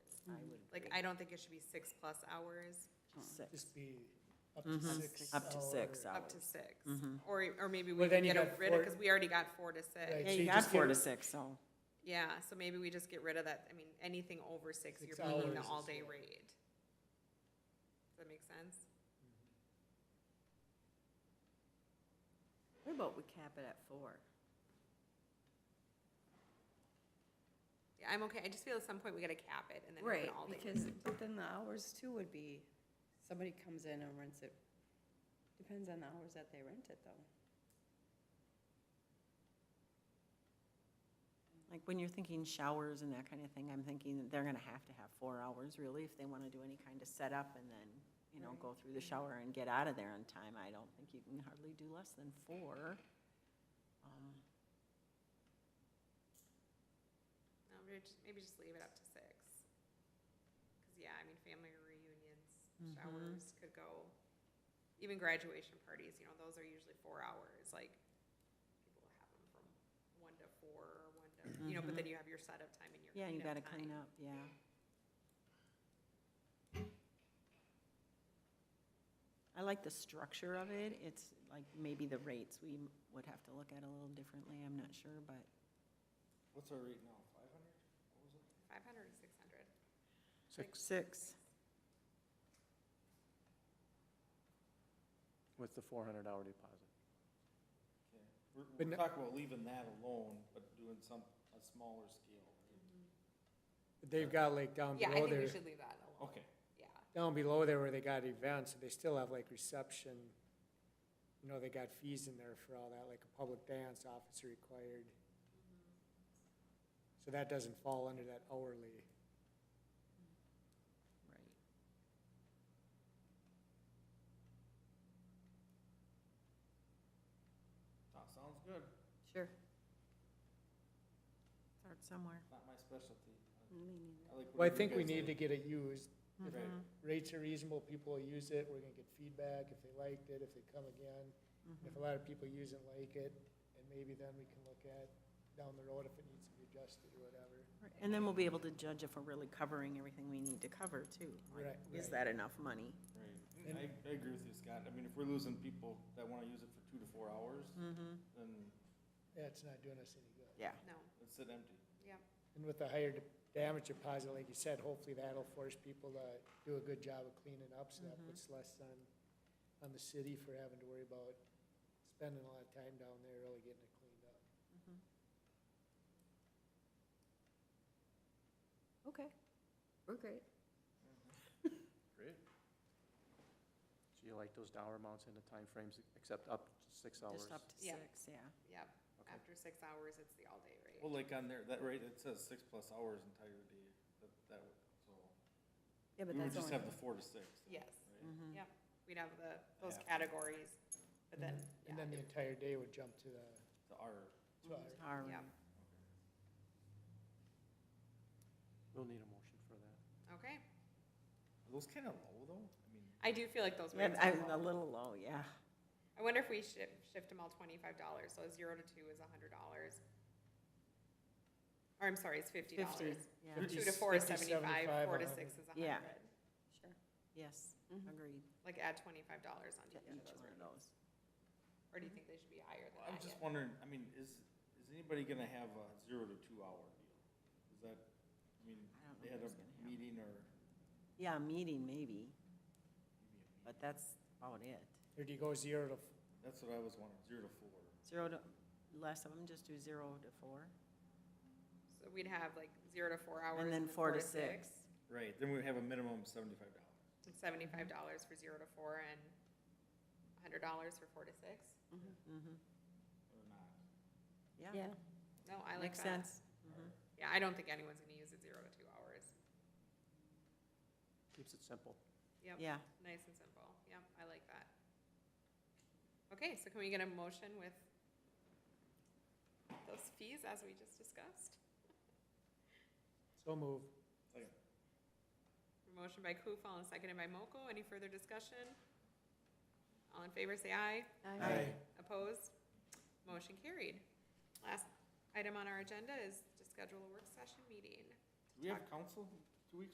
Mm-hmm. Like, I don't think it should be six-plus hours, six, Just be up to six. up to six up hours. Mm-hmm. to six. Or, or maybe we Well, can then you get a- got rid of, four- because we already got four to six. Right. Yeah, So you you got just four to give- six, so, Yeah, so maybe we just get rid of that, I mean, anything over six, you're Six paying the hours is all-day what- rate. Does that make sense? What about we cap it at four? Yeah, I'm okay, I just feel at some point we gotta cap it and then have Right, an all-day. because, but then the hours too would be, somebody comes in and rents it. Depends on the hours that they rent it though. like, when you're thinking showers and that kind of thing, I'm thinking that they're gonna have to have four hours, really, if they wanna do any kind of setup and then, you know, go Right. through the shower and get out of there on time. I don't think you can hardly do less than four. Um, No, maybe just- Maybe just leave it up to six. Cause yeah, I mean, family reunions, Mm-hmm. showers could go, even graduation parties, you know, those are usually four hours, like, people have them from one to four, or one to, you know, but then you have your setup time and your Mm-hmm. Yeah, cleanup time. you gotta clean up, yeah. I like the structure of it, it's like maybe the rates we m- would have to look at a little differently, I'm not sure, but What's our rate now, five hundred? Five hundred or six hundred? six. with the four hundred hour deposit. We're, But we're no- talking about leaving that alone, but doing some, a smaller scale, Mm-hmm. right? They've got like down Yeah, I think below we there, should leave that alone, Okay, yeah. down below there where they got events, so they still have like reception. You know, they got fees in there for all that, like a public dance officer required. So that doesn't fall under that hourly. Right. that sounds good, Sure. Start somewhere. not my specialty. I I like Well, I whatever you think we guys need to like. get it used. Right. Mm-hmm. Rates are reasonable, people will use it, we're gonna get feedback if they liked it, if they come again. If a lot of people use and like it, and maybe then we can look at down the road if it needs to be adjusted or whatever. Right, And then we'll be able to judge if we're really covering everything we need to cover too. like, Right, Is right. that enough money? Right, I, I agree with you, Scott, I mean, if we're losing people that wanna use it for two to four hours, Mm-hmm. Mm-hmm. then That's not doing us any good. Yeah. No, it's sit empty. yeah, And with the higher d- damage deposit, like you said, hopefully that'll force people to do a good job of cleaning up, so that puts less on, on the city for having to worry about spending a lot of time down there really getting it cleaned up. Okay. We're great. Great. So you like those dollar amounts and the timeframes, except up to six hours? Just up to Yeah. six, yeah. yeah. Okay. After six hours, it's the all-day rate. Well, like on there, that rate, it says six plus hours entire day, that, that, would- so, Yeah, but we would that's just only, Mm-hmm. have the four to six. then, Yes. right? Yep, we'd have the, those Half. categories, but then, yeah, And then the it- entire day would jump to the, The hour. to our- All yeah, right. We'll need a motion for that. okay. Are those kinda low though? I mean, I do feel like those Yeah, rates are I'm a low. little low, yeah. I wonder if we shift, shift them all twenty-five dollars, so a zero to two is a hundred dollars. Or I'm sorry, it's fifty Fifty, dollars. yeah. Fifty. Two to four is 50, seventy-five, 75, four to 100. six is a Yeah. hundred. sure. Yes, Mhm. agreed. Like add twenty-five dollars To onto each of Mm-hmm. each those one of rates. those. Or do you think they should be higher than I'm that just yet? wondering, I mean, is, is anybody gonna have a zero to two hour deal? Is that, I mean, I don't know they if had a it's gonna happen. meeting or? Yeah, a meeting maybe, maybe a but meeting. that's about it. or do you go zero to, f- That's what I was wondering, zero to four. Zero to, less of them, just do zero to four. So we'd have like zero to four hours. then four to six. Right, then we have a minimum seventy-five dollars. and Seventy-five dollars for zero to four and a hundred dollars for four to six. Mhm. Or not. Yeah, Yeah, No, I like makes that. Mm-hmm. sense. Yeah, I don't think anyone's gonna use it zero to two hours. Keeps it simple. Yep. Yeah, Nice and simple. Yep, I like that. Okay, so can we get a motion with those fees as we just discussed? so move. Motion by Kufal and seconded by Mokel. Any further discussion? All in favor, say aye. I, Opposed? Motion carried. Last item on our agenda is to schedule a work session meeting. Do we have council